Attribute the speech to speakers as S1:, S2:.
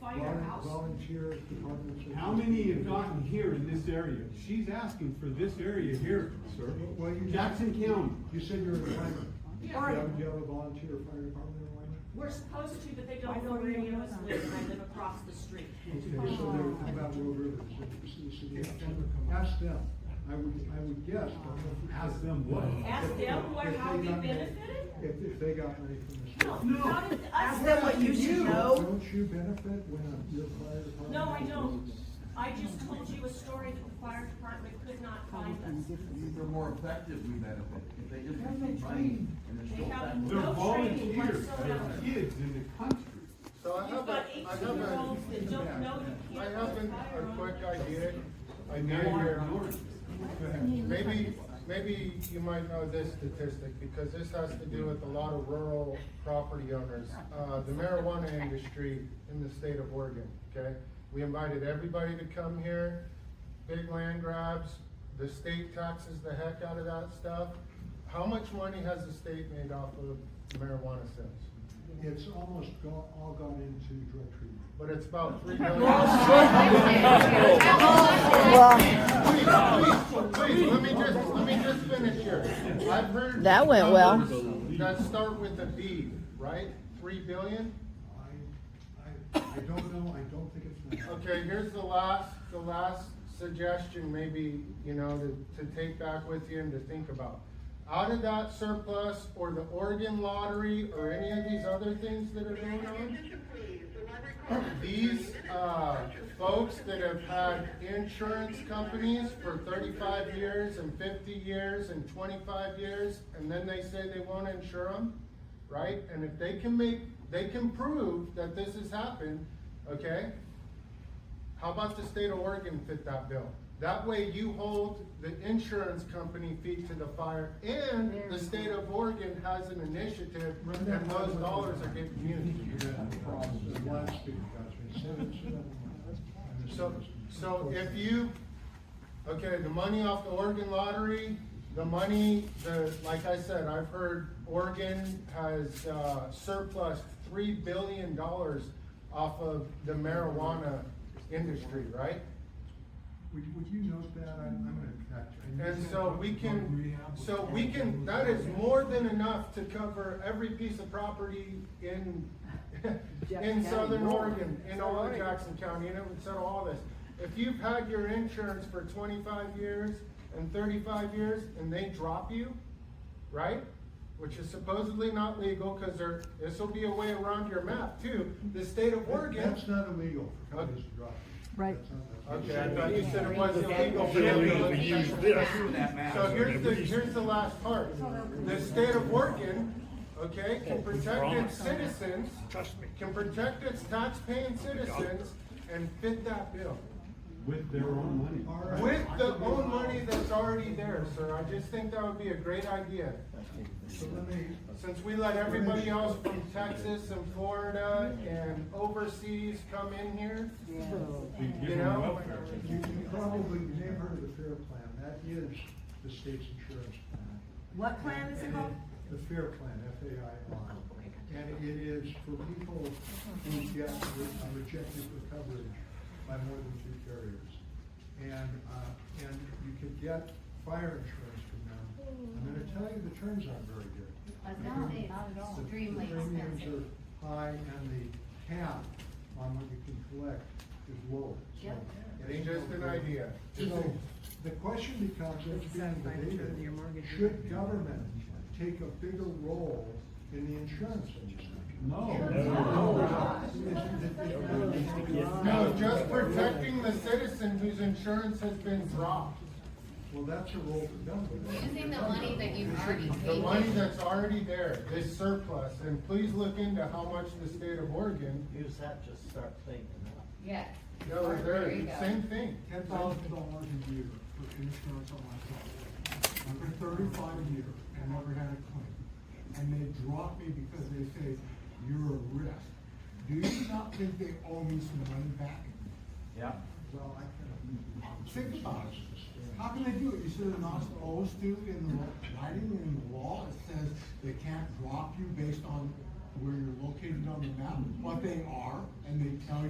S1: by your house.
S2: Volunteers, departments.
S3: How many have gotten here in this area? She's asking for this area here, sir.
S2: Well, you-
S3: Jackson County.
S2: You said you're in Wyman.
S1: Yeah.
S2: Do you have- do you have a volunteer fire department in Wyman?
S1: We're supposed to, but they
S4: I
S1: don't know
S4: don't
S1: where any of
S4: know
S1: us
S4: that.
S1: live, and I live across the street. Um,
S2: Okay, so they're how about Will River, Is it the city of Denver? Ask them, I would, I would guess. but I don't know.
S3: Ask them what?
S1: Ask them what,
S2: If
S1: how
S2: they
S1: we
S2: got money-
S1: benefited?
S2: If, if they got money from the
S1: No,
S2: state.
S3: No.
S1: how did us
S4: Ask them what you
S1: benefit?
S4: should know.
S2: Don't you benefit when your fire department?
S1: No, I don't. I just told you a story that the fire department could not find us.
S5: They're more effective, we benefit, if they just keep running and they're
S1: They
S5: still
S1: have
S5: effective.
S3: They're
S1: No training
S3: volunteers,
S1: whatsoever.
S3: they're kids in the country.
S6: So I
S1: You've
S6: have
S1: got
S6: a, I have a,
S1: eighteen-year-olds that don't know you
S6: I
S1: can't
S6: have
S1: put
S6: an-
S1: fire
S6: a
S1: on.
S6: quick idea. I
S3: And
S6: know
S3: now you're
S6: you're,
S3: ignoring it.
S6: maybe, maybe you might know this statistic, because this has to do with a lot of rural property owners. Uh, the marijuana industry in the state of Oregon, okay? We invited everybody to come here, big land grabs, the state taxes the heck out of that stuff. How much money has the state made off of marijuana sales?
S2: It's almost go, all gone into drug treatment.
S6: But it's about three million. Please, please, please, let me just, let me just finish here. I've heard.
S7: That went well.
S6: numbers That start with a B, right? Three billion?
S2: I, I, I don't know, I don't think it's that.
S6: Okay, here's the last, the last suggestion maybe, you know, to, to take back with you and to think about. Out of that surplus or the Oregon lottery or any of these other things that are going on, These, uh, folks that have had insurance companies for thirty-five years and fifty years and twenty-five years, and then they say they won't insure them, right? And if they can make, they can prove that this has happened, okay? How about the state of Oregon fit that bill? That way you hold the insurance company feet to the fire, and the state of Oregon has an initiative, and those dollars are getting used.
S2: You had a problem, the last speaker got me, seven, seven. I missed
S6: So,
S2: this.
S6: so if you, okay, the money off the Oregon lottery, the money, the, like I said, I've heard Oregon has, uh, surplus three billion dollars off of the marijuana industry, right?
S2: Would, would you note that? I'm, I'm gonna catch. I
S6: And
S2: missed
S6: so
S2: that.
S6: we can, so we can, that is more than enough to cover every piece of property in, in southern Oregon, in all of Jackson County, and it would settle all this. If you've had your insurance for twenty-five years and thirty-five years, and they drop you, right? Which is supposedly not legal, cause there, this'll be a way around your map too, the state of Oregon.
S2: That's not illegal for companies to drop.
S4: Right.
S2: That's not-
S6: Okay, I thought you said it was illegal. for them to
S8: Really,
S6: let
S8: we
S6: you-
S8: use this.
S6: So here's the, here's the last part. The state of Oregon, okay, can protect its citizens,
S8: Trust me.
S6: can protect its tax-paying citizens and fit that bill
S3: With their own money.
S2: All right.
S6: with the own money that's already there, sir. I just think that would be a great idea.
S2: So let me,
S6: Since we let everybody else from Texas and Florida and overseas come in here,
S3: We give
S6: You
S3: them
S6: know?
S3: welfare.
S2: you, you probably, you may have heard of the FAIR Plan, that is the state's insurance plan.
S4: What plan is it called? Oh,
S2: The FAIR Plan, F A I R. And it is for people who get re- uh, rejected for coverage by more than two carriers. And, uh, and you can get fire insurance from them. I'm gonna tell you, the terms aren't very good. The-
S9: Extremely
S2: The premiums
S9: expensive.
S2: are high and the cap on what you can collect is low. So
S9: Yep.
S2: it ain't
S6: just an idea.
S2: so, the question becomes, it's being debated, should government take a bigger role in the insurance industry?
S6: No, just protecting the citizen whose insurance has been dropped.
S2: Well, that's a role for government.
S9: Using the money that you've already
S6: The
S9: paid.
S6: money that's already there, this surplus, and please look into how much the state of Oregon,
S5: Use that, just start thinking.
S9: Yeah.
S6: that was
S9: There
S6: there,
S9: you go.
S6: same thing.
S10: ten thousand dollars a year for insurance on my property. I'm for thirty-five years and never had a claim. And they drop me because they say, you're a risk. Do you not think they owe me some money back?
S5: Yeah.
S2: Well, I can.
S10: Think about it. How can they do it? You should have not supposed to in the lo- writing in the law, it says they can't drop you based on where you're located on the map, but they are, and they tell you